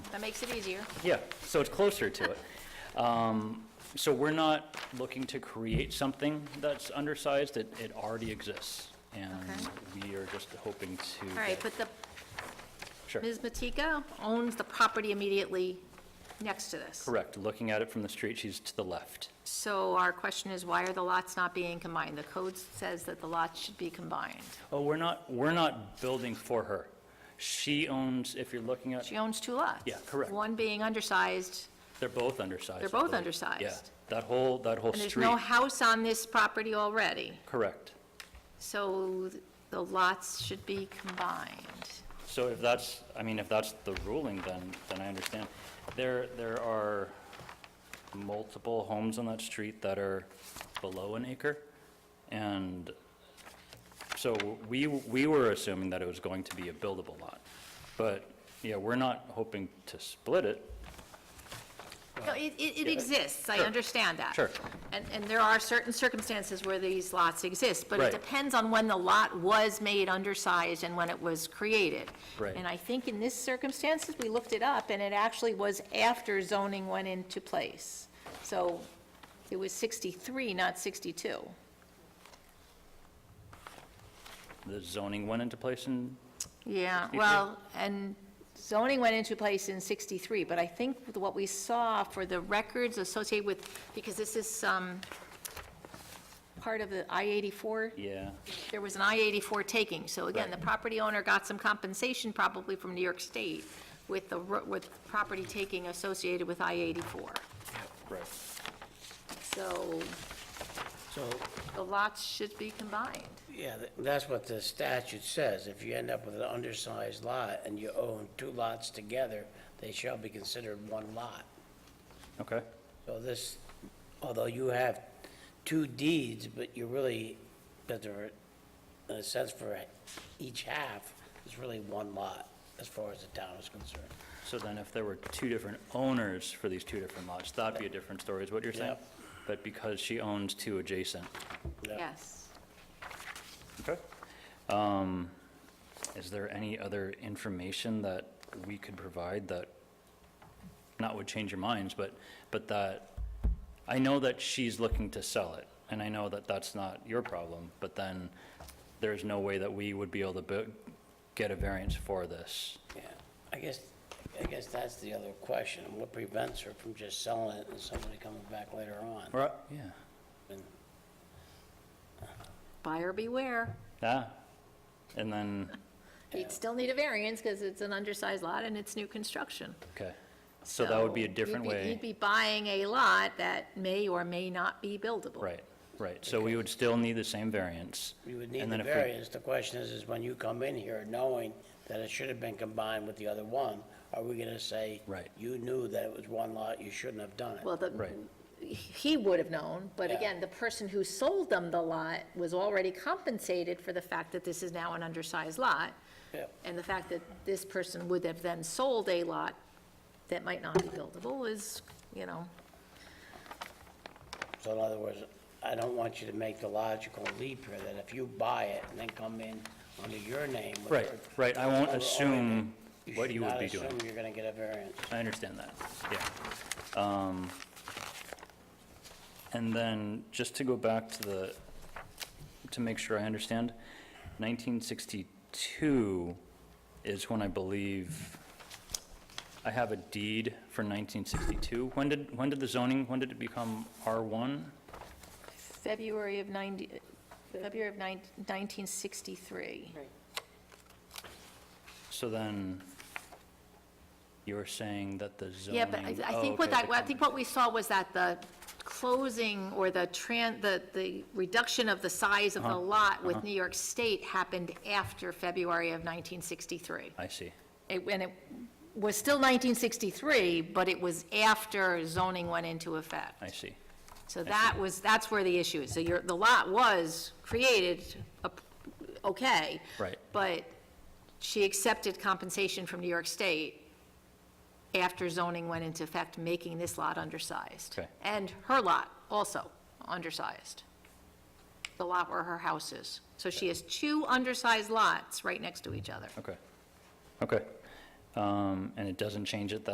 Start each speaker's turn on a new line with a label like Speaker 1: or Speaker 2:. Speaker 1: makes it easier.
Speaker 2: Yeah, so it's closer to it. Um, So we're not looking to create something that's undersized, it, it already exists. And we are just hoping to.
Speaker 1: All right,
Speaker 2: get-
Speaker 1: but the,
Speaker 2: Sure,
Speaker 1: Ms. Matika owns the property immediately next to this.
Speaker 2: correct, looking at it from the street, she's to the left.
Speaker 1: So our question is, why are the lots not being combined? The code says that the lots should be combined.
Speaker 2: Oh, we're not, we're not building for her. She owns, if you're looking at,
Speaker 1: She owns two lots.
Speaker 2: Yeah, correct.
Speaker 1: One being undersized,
Speaker 2: they're both undersized.
Speaker 1: They're
Speaker 2: I
Speaker 1: both
Speaker 2: believe. Yeah,
Speaker 1: undersized.
Speaker 2: that whole, that whole
Speaker 1: and there's
Speaker 2: street,
Speaker 1: no house on this property already,
Speaker 2: correct.
Speaker 1: so the lots should be combined.
Speaker 2: So if that's, I mean, if that's the ruling, then, then I understand. There, there are multiple homes on that street that are below an acre, and so we, we were assuming that it was going to be a buildable lot. But, yeah, we're not hoping to split it.
Speaker 1: No, it, it it
Speaker 2: yeah.
Speaker 1: exists, I
Speaker 2: Sure.
Speaker 1: understand that.
Speaker 2: Sure.
Speaker 1: And, and there are certain circumstances where these lots exist, but it
Speaker 2: Right.
Speaker 1: depends on when the lot was made undersized and when it was created.
Speaker 2: Right.
Speaker 1: And I think in this circumstances, we looked it up, and it actually was after zoning went into place. So it was 63, not 62.
Speaker 2: The zoning went into place and,
Speaker 1: Yeah,
Speaker 2: 63?
Speaker 1: well, and zoning went into place in 63, but I think what we saw for the records associated with, because this is um, part of the I-84,
Speaker 2: yeah,
Speaker 1: there was an I-84 taking, so again, the
Speaker 2: Right.
Speaker 1: property owner got some compensation probably from New York State with the, ro- with property taking associated with I-84.
Speaker 2: right.
Speaker 1: So
Speaker 3: So,
Speaker 1: the lots should be combined.
Speaker 3: yeah, th- that's what the statute says. If you end up with an undersized lot and you own two lots together, they shall be considered one lot.
Speaker 2: Okay,
Speaker 3: So this, although you have two deeds, but you really, but there, are, in a sense for each half, it's really one lot as far as the town is concerned.
Speaker 2: so then if there were two different owners for these two different lots, that'd be a different story, is what you're saying?
Speaker 3: Yep.
Speaker 2: But because she owns two adjacent.
Speaker 3: Yeah.
Speaker 1: Yes.
Speaker 2: Okay. Um, Is there any other information that we could provide that, not would change your minds, but, but that, I know that she's looking to sell it, and I know that that's not your problem, but then there's no way that we would be able to bu- get a variance for this.
Speaker 3: Yeah, I guess, I guess that's the other question. What prevents her from just selling it and somebody coming back later on?
Speaker 2: Right. Yeah.
Speaker 3: And-
Speaker 1: Buyer beware.
Speaker 2: Yeah. And then,
Speaker 1: You'd still need a variance because it's an undersized lot and it's new construction.
Speaker 2: okay. So that would be a
Speaker 1: you'd
Speaker 2: different way.
Speaker 1: You'd be buying a lot that may or may not be buildable.
Speaker 2: Right, right. So we would still need the same variance.
Speaker 3: You would need
Speaker 2: and
Speaker 3: the
Speaker 2: then if we-
Speaker 3: variance. The question is, is when you come in here knowing that it should have been combined with the other one, are we gonna say?
Speaker 2: Right.
Speaker 3: You knew that it was one lot, you shouldn't have done it?
Speaker 1: Well, the,
Speaker 2: Right.
Speaker 1: he would have known, but
Speaker 3: Yeah.
Speaker 1: again, the person who sold them the lot was already compensated for the fact that this is now an undersized lot,
Speaker 3: Yeah.
Speaker 1: and the fact that this person would have then sold a lot that might not be buildable is, you know,
Speaker 3: So in other words, I don't want you to make the logical leap here that if you buy it and then come in under your name. with
Speaker 2: Right,
Speaker 3: your-
Speaker 2: right. I won't
Speaker 3: or- or-
Speaker 2: assume what
Speaker 3: should
Speaker 2: you would
Speaker 3: not
Speaker 2: be doing.
Speaker 3: assume you're gonna get a variance.
Speaker 2: I understand that, yeah. Um, And then, just to go back to the, to make sure I understand, 1962 is when I believe, I have a deed for 1962. When did, when did the zoning, when did it become R1?
Speaker 1: February of 90, February of 19- 1963.
Speaker 2: So then, you were saying that the zoning...
Speaker 1: Yeah, but I, I
Speaker 2: oh,
Speaker 1: think what
Speaker 2: okay,
Speaker 1: that,
Speaker 2: the
Speaker 1: I think what we saw was that the closing or the tran, the, the reduction of the size
Speaker 2: Uh-huh.
Speaker 1: of the lot with New York State happened after February of 1963.
Speaker 2: I see,
Speaker 1: It, and it was still 1963, but it was after zoning went into effect.
Speaker 2: I see.
Speaker 1: So that was, that's where the issue is. So your, the lot was created, up- okay.
Speaker 2: Right.
Speaker 1: But she accepted compensation from New York State after zoning went into effect, making this lot undersized.
Speaker 2: Okay.
Speaker 1: And her lot also undersized, the lot where her house is. So she has two undersized lots right next to each other.
Speaker 2: Okay, okay. Um, And it doesn't change it that